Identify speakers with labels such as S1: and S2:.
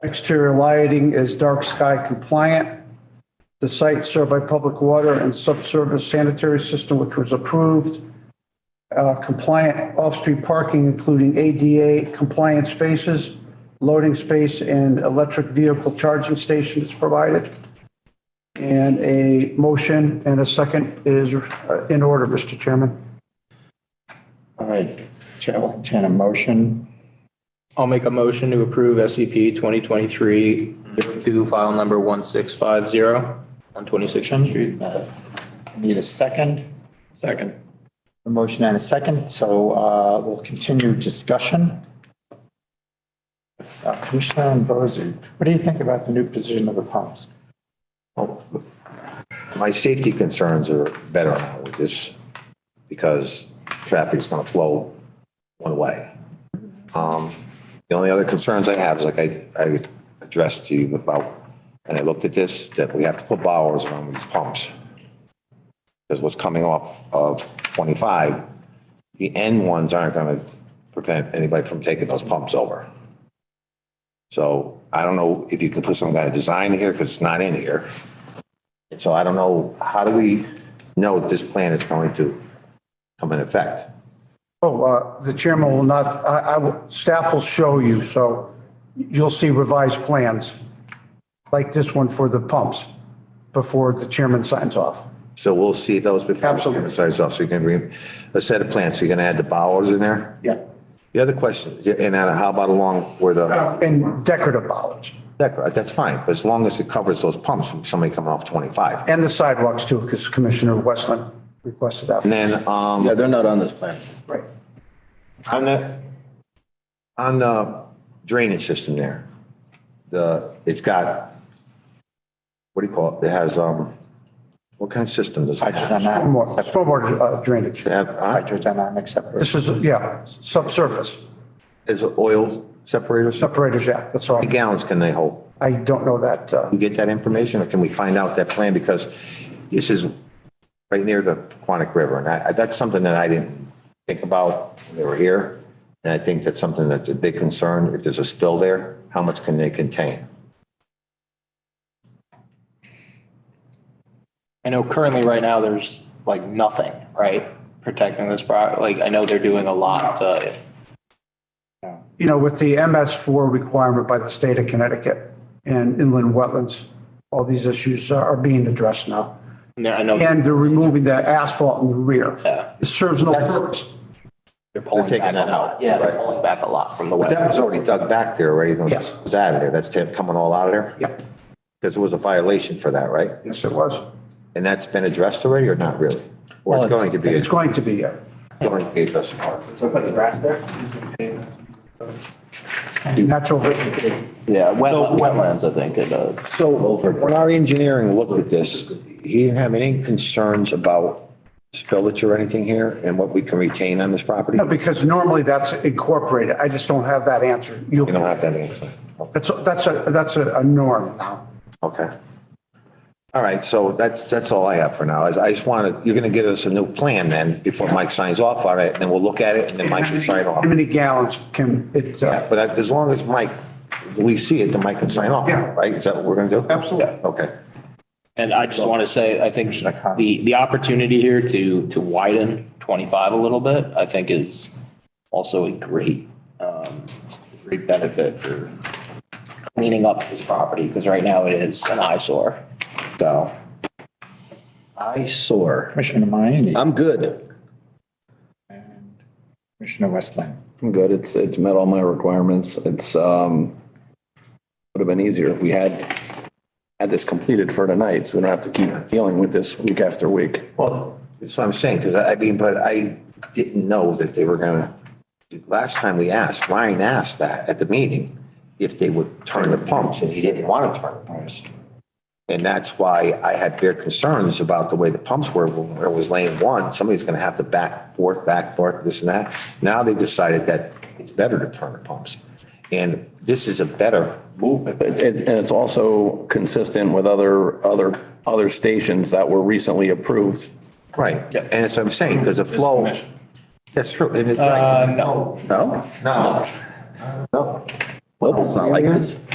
S1: Exterior lighting is dark sky compliant. The site served by public water and subsurface sanitary system, which was approved. Uh, Compliant off-street parking, including ADA compliant spaces, loading space, and electric vehicle charging station is provided. And a motion and a second is uh, in order, Mr. Chairman.
S2: All right, Chair will entertain a motion.
S3: I'll make a motion to approve E SCP 2023-02, file number 1650, on 26 Shen Street.
S2: Uh, Need a second,
S3: Second.
S2: a motion and a second, so uh, we'll continue discussion. Uh, Commissioner Ambrosi, what do you think about the new position of the pumps?
S4: My safety concerns are better now with this because traffic's gonna flow one way. Um, the only other concerns I have is like I, I addressed to you about, and I looked at this, that we have to put bowers around these pumps. Because what's coming off of twenty-five, the end ones aren't gonna prevent anybody from taking those pumps over. So I don't know if you can put some kind of design here, because it's not in here. So I don't know, how do we know that this plan is going to come in effect?
S1: Oh, uh, the chairman will not, I, I, will- staff will show you, so you'll see revised plans like this one for the pumps before the chairman signs off.
S4: So we'll see those before.
S1: Absolutely.
S4: Besides, also you can bring a set of plans, so you're gonna add the bowers in there?
S2: Yeah.
S4: The other question, and then how about along where the,
S1: And decorative bollards
S4: that- that's fine, but as long as it covers those pumps from somebody coming off 25.
S1: and the sidewalks too, because Commissioner Westland requested
S4: And
S1: that.
S4: then, um.
S5: Yeah, they're not on this plan.
S1: Right.
S4: On the, on the drainage system there, the, it's got, what do you call it? It has, um, what kind of system does it have?
S2: Hydrodynamic,
S1: Stormwater, stormwater uh, drainage.
S4: It have? huh?
S2: hydrodynamic separation.
S1: This is, yeah, subsurface,
S4: Is it oil separator? How
S1: separators, yeah, that's all.
S4: many gallons can they hold?
S1: I don't know that, uh,
S4: Can we get that information or can we find out that plan? Because this is right near the Quonic River and I, that's something that I didn't think about when they were here. And I think that's something that's a big concern. If there's a spill there, how much can they contain?
S3: I know currently, right now, there's like nothing, right, protecting this property. Like, I know they're doing a lot uh, to,
S1: you know, with the MS4 requirement by the state of Connecticut and inland wetlands, all these issues are being addressed now.
S3: and I know
S1: And they're removing the asphalt in the rear.
S3: Yeah.
S1: It serves no
S4: That's-
S1: purpose.
S3: they're pulling
S4: They're
S3: back
S4: taking
S3: a
S4: that
S3: lot.
S4: out,
S3: Yeah, they're
S4: right.
S3: pulling back a lot from the
S4: But that
S3: wetlands.
S4: was already dug back there, right? It
S1: Yes.
S4: was out of there. That's it coming all out of there?
S1: Yep,
S4: Because it was a violation for that, right?
S1: yes, it was.
S4: And that's been addressed already or not really? Or it's going to be,
S1: It's
S4: it's
S1: going to be, yeah.
S4: going to be addressed.
S1: Natural,
S3: Yeah, wet- wetlands, I think, it, uh,
S4: So when our engineering looked at this, he didn't have any concerns about spillage or anything here and what we can retain on this property?
S1: No, because normally that's incorporated. I just don't have that answer. You'll,
S4: You don't have that answer? Oh,
S1: that's, that's a, that's a a norm now.
S4: Okay. All right, so that's, that's all I have for now. I just wanted, you're going to give us a new plan then before Mike signs off on it and then we'll look at it and then Mike can sign off.
S1: How many gallons can it,
S4: Yeah,
S1: uh,
S4: but as long as Mike, we see it, then Mike can sign off,
S1: Yeah.
S4: right? Is that what we're going to do?
S1: Absolutely.
S4: Okay.
S3: And I just want to say, I think the, the opportunity here to, to widen 25 a little bit, I think is also a great, um, great benefit for cleaning up this property because right now it is an eyesore. So
S5: I soar.
S2: Commissioner Mayne,
S5: I'm good.
S2: Commissioner Westland.
S6: I'm good. It's, it's met all my requirements. It's, um, would have been easier if we had, had this completed for tonight, so we don't have to keep dealing with this week after week.
S4: Well, that's what I'm saying, because I I mean, but I didn't know that they were gonna, last time we asked, Ryan asked that at the meeting, if they would turn the pumps, and he didn't want to turn the pumps. And that's why I had bare concerns about the way the pumps were, where it was lane one, somebody's gonna have to back forth, back forth, this and that. Now they decided that it's better to turn the pumps. And this is a better movement.
S6: It- it- And it's also consistent with other, other, other stations that were recently approved.
S4: Right, and that's what I'm saying, because the flow. That's true. and it's like-
S3: no.
S5: No?
S4: No.
S5: Global's not like this.